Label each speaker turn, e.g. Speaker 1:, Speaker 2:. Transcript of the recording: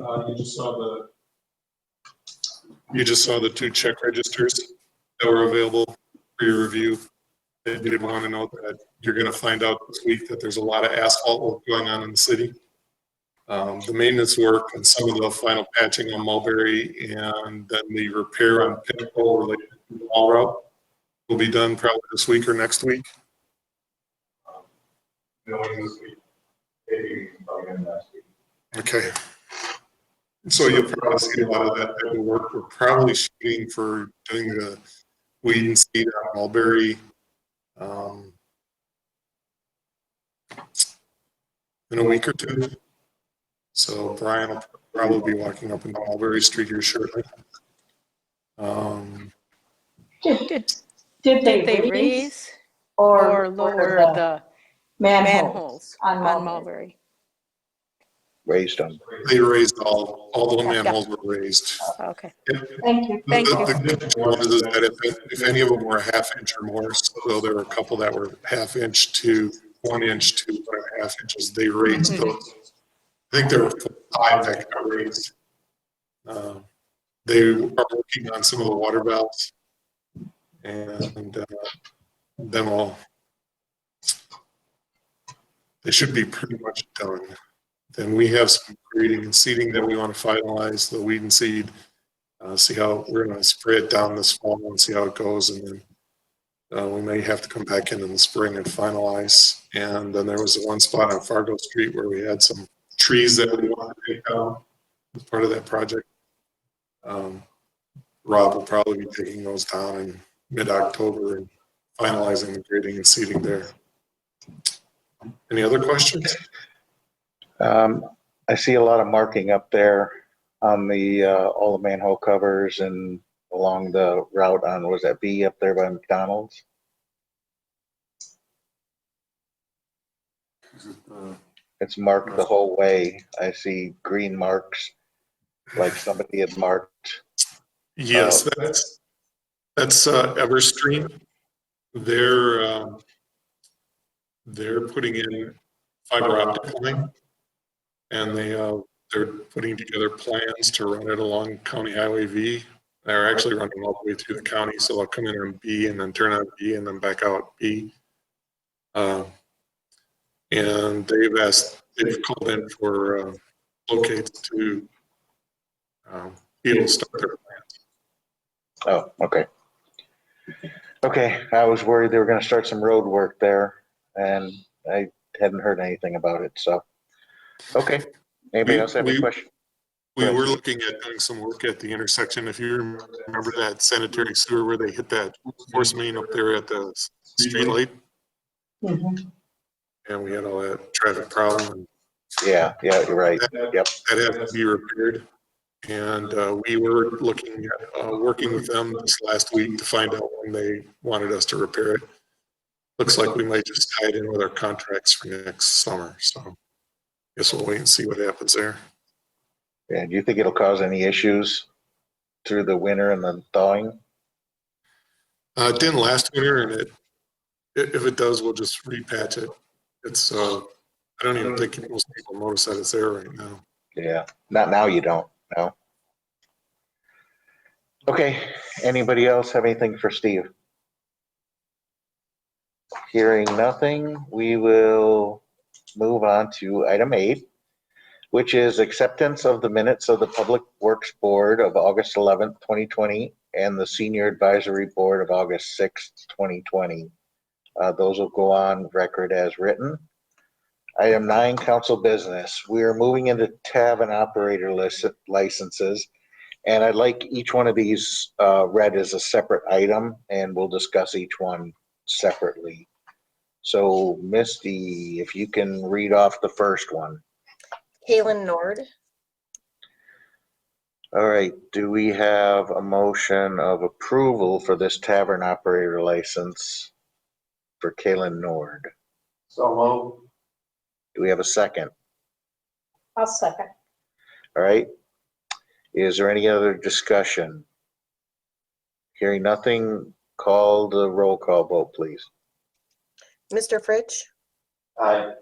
Speaker 1: Uh, you just saw the, you just saw the two check registers that were available for your review. I did want to note that you're going to find out this week that there's a lot of asphalt work going on in the city. Um, the maintenance work and some of the final patching on Mulberry and then the repair on Pinnacle related to the wall route will be done probably this week or next week. Um, Knowing this week, maybe probably next week. Okay. So you'll probably see a lot of that type of work. We're probably shooting for doing the weed and seed on Mulberry. um, In a week or two. So Brian will probably be walking up into Mulberry Street here shortly. Um,
Speaker 2: Did
Speaker 3: Did
Speaker 2: did
Speaker 3: they raise or lower the
Speaker 2: manhole
Speaker 3: manholes
Speaker 2: on Mulberry?
Speaker 3: on Mulberry?
Speaker 4: raised on.
Speaker 1: They raised all, all the manholes were raised.
Speaker 3: Okay,
Speaker 2: Thank you.
Speaker 3: Thank you.
Speaker 1: The- the good one is that if, if any of them were a half inch or more, so there were a couple that were half inch to one inch to one and a half inches, they raised
Speaker 3: Mm-hmm.
Speaker 1: those. I think there were five that got raised. Um, They are working on some of the water valves. And uh, then all. They should be pretty much done. Then we have some grading and seeding that we want to finalize, the weed and seed. Uh, see how, we're gonna spray it down this fall and see how it goes and then. Uh, we may have to come back in in the spring and finalize. And then there was one spot on Fargo Street where we had some trees that we wanted to take down as part of that project. Um, Rob will probably be taking those down in mid-October and finalizing the grading and seeding there. Any other questions?
Speaker 4: Um, I see a lot of marking up there on the, uh, all the manhole covers and along the route on, was that B up there by McDonald's? It's marked the whole way. I see green marks, like somebody had marked.
Speaker 1: Yes,
Speaker 4: Uh,
Speaker 1: that's, that's uh, Everstream. They're, um, they're putting in fiber optic line. And they, uh, they're putting together plans to run it along County Highway V. They're actually running all the way through the county, so they'll come in on B and then turn on B and then back out B. Uh, And they've asked, they've called in for uh, locates to um, be able to start their
Speaker 4: Oh, okay. Okay, I was worried they were gonna start some road work there and I hadn't heard anything about it, so. Okay, anybody
Speaker 1: We-
Speaker 4: else have any
Speaker 1: we-
Speaker 4: questions?
Speaker 1: We
Speaker 4: Right.
Speaker 1: were looking at doing some work at the intersection, if you rem- remember that sanitary sewer where they hit that force main up there at the s-
Speaker 4: Mm-hmm.
Speaker 1: street light,
Speaker 2: Mhm.
Speaker 1: and we had all that traffic problem.
Speaker 4: Yeah, yeah, you're right.
Speaker 1: That had to be repaired. And uh, we were looking at, uh, working with them this last week to find out when they wanted us to repair it. Looks like we might just tie it in with our contracts for next summer, so guess we'll wait and see what happens there.
Speaker 4: And do you think it'll cause any issues through the winter and the thawing?
Speaker 1: Uh, it didn't last winter and it, i- if it does, we'll just repatch it. It's, uh, I don't even think most people notice that it's there right now.
Speaker 4: Yeah, not now you don't, no. Okay, anybody else have anything for Steve? Hearing nothing, we will move on to item eight, which is acceptance of the minutes of the Public Works Board of August 11th, 2020, and the Senior Advisory Board of August 6th, 2020. Uh, Those will go on record as written. Item nine, council business. We are moving into tavern operator lis- licenses. And I'd like each one of these uh, read as a separate item, and we'll discuss each one separately. So Misty, if you can read off the first one.
Speaker 5: Kalen Nord,
Speaker 4: All right, do we have a motion of approval for this tavern operator license for Kalen Nord?
Speaker 6: So moved.
Speaker 4: Do we have a second?
Speaker 2: I'll second.
Speaker 4: All right. Is there any other discussion? Hearing nothing, call the roll call vote, please.
Speaker 5: Mr. Fritsch,
Speaker 6: Aye.